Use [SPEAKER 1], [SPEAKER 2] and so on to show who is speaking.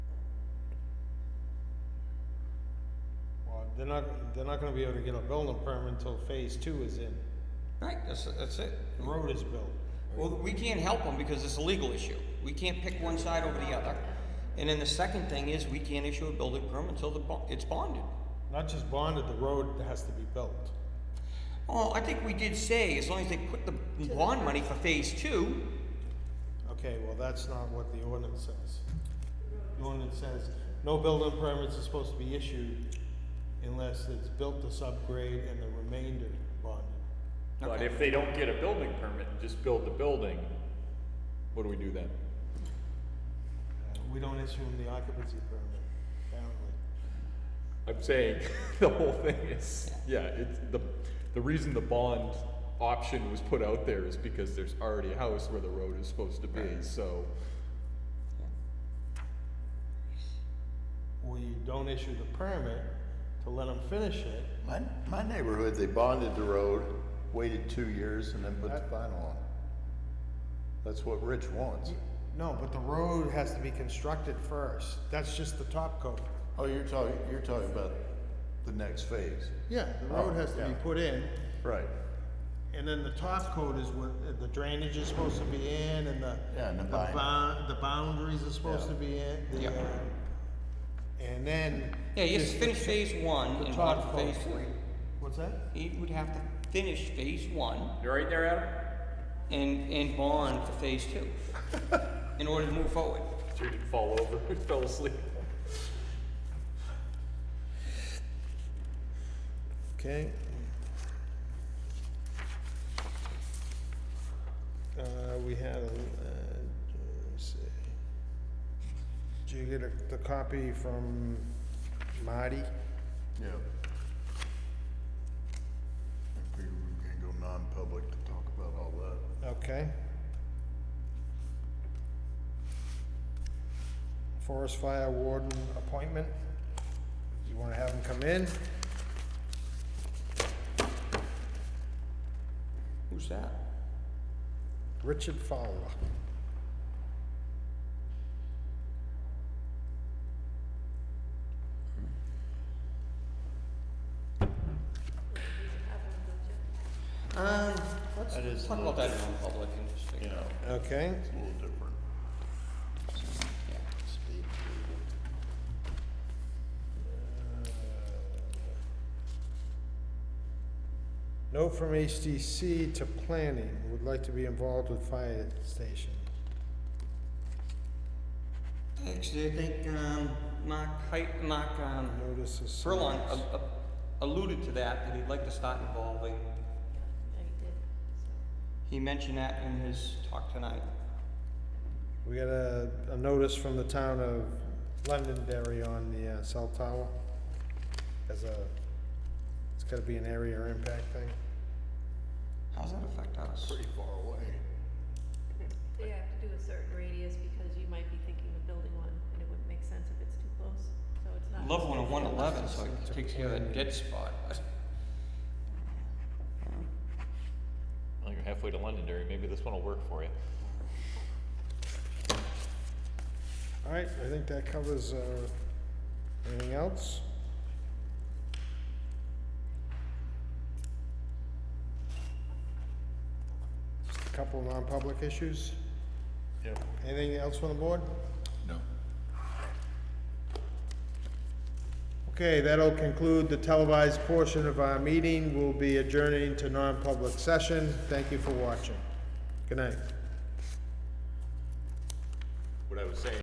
[SPEAKER 1] they're not, they're not gonna be able to get a building permit until phase two is in.
[SPEAKER 2] Right, that's, that's it.
[SPEAKER 1] The road is built.
[SPEAKER 2] Well, we can't help them because it's a legal issue. We can't pick one side over the other. And then the second thing is, we can't issue a building permit until the, bo- it's bonded.
[SPEAKER 1] Not just bonded, the road has to be built.
[SPEAKER 2] Oh, I think we did say, as long as they put the bond money for phase two,
[SPEAKER 1] Okay, well, that's not what the ordinance says. The ordinance says, no building permits are supposed to be issued unless it's built to subgrade and the remainder bonded.
[SPEAKER 3] But
[SPEAKER 2] Okay.
[SPEAKER 3] if they don't get a building permit and just build the building, what do we do then?
[SPEAKER 1] Uh, We don't issue them the occupancy permit, apparently.
[SPEAKER 3] I'm saying, the whole thing is, yeah, it's, the, the reason the bond option was put out there is because there's already a house where the road is supposed to be, so.
[SPEAKER 1] Or you don't issue the permit to let them finish it.
[SPEAKER 4] My, my neighborhood, they bonded the road, waited two years, and then put the final on. That's what Rich wants.
[SPEAKER 1] No, but the road has to be constructed first. That's just the top coat.
[SPEAKER 4] Oh, you're talking, you're talking about the next phase.
[SPEAKER 1] Yeah, the road has to be
[SPEAKER 4] Oh, Yeah.
[SPEAKER 1] put in,
[SPEAKER 4] Right.
[SPEAKER 1] and then the top coat is what, uh, the drainage is supposed to be in, and the.
[SPEAKER 4] Yeah, and the bind-
[SPEAKER 1] bound, the boundaries are supposed to
[SPEAKER 4] Yeah.
[SPEAKER 1] be in, the,
[SPEAKER 2] Yeah.
[SPEAKER 1] uh, and then.
[SPEAKER 2] yeah, you have
[SPEAKER 1] just
[SPEAKER 2] to
[SPEAKER 1] the
[SPEAKER 2] finish
[SPEAKER 1] ch-
[SPEAKER 2] phase one
[SPEAKER 1] the
[SPEAKER 2] and bond
[SPEAKER 1] top
[SPEAKER 2] for phase
[SPEAKER 1] coat.
[SPEAKER 2] two.
[SPEAKER 1] What's that?
[SPEAKER 2] He would have to finish phase one
[SPEAKER 3] You're right there, Adam?
[SPEAKER 2] and, and bond for phase two in order to move forward.
[SPEAKER 3] Sure didn't fall over, fell asleep.
[SPEAKER 4] Okay.
[SPEAKER 1] Uh, we had, a, uh, let's see. Did you get a, the copy from Marty?
[SPEAKER 4] Yeah. I figured we were gonna go non-public to talk about all that.
[SPEAKER 1] Okay. Forest fire warden appointment. You wanna have him come in?
[SPEAKER 2] Who's that?
[SPEAKER 1] Richard Fowler.
[SPEAKER 2] Um, let's
[SPEAKER 4] That is
[SPEAKER 2] talk about that in non-public and just figure it out.
[SPEAKER 1] Okay,
[SPEAKER 4] It's a little different.
[SPEAKER 2] Yeah.
[SPEAKER 4] Speed.
[SPEAKER 1] note from HDC to planning, would like to be involved with fire station.
[SPEAKER 2] Actually, I think, um, Mark, Hi- Mark, um,
[SPEAKER 1] Notice of.
[SPEAKER 2] Furlong
[SPEAKER 1] service.
[SPEAKER 2] a- a- alluded to that, that he'd like to start involving, he mentioned that in his talk tonight.
[SPEAKER 1] We got a, a notice from the town of Londonderry on the uh, cell tower. As a, it's gotta be an area impact thing.
[SPEAKER 2] How's that affect us?
[SPEAKER 4] Pretty far away.
[SPEAKER 5] They have to do a certain radius because you might be thinking of building one and it wouldn't make sense if it's too close, so it's not.
[SPEAKER 2] Love one of one eleven, so it takes care of that dead spot.
[SPEAKER 3] Well, you're halfway to Londonderry, maybe this one will work for you.
[SPEAKER 1] Alright, I think that covers, uh, anything else? Just a couple non-public issues.
[SPEAKER 4] Yep.
[SPEAKER 1] Anything else from the board?
[SPEAKER 4] No.
[SPEAKER 1] Okay, that'll conclude the televised portion of our meeting. We'll be adjourning to non-public session. Thank you for watching. Good night.
[SPEAKER 3] What I was saying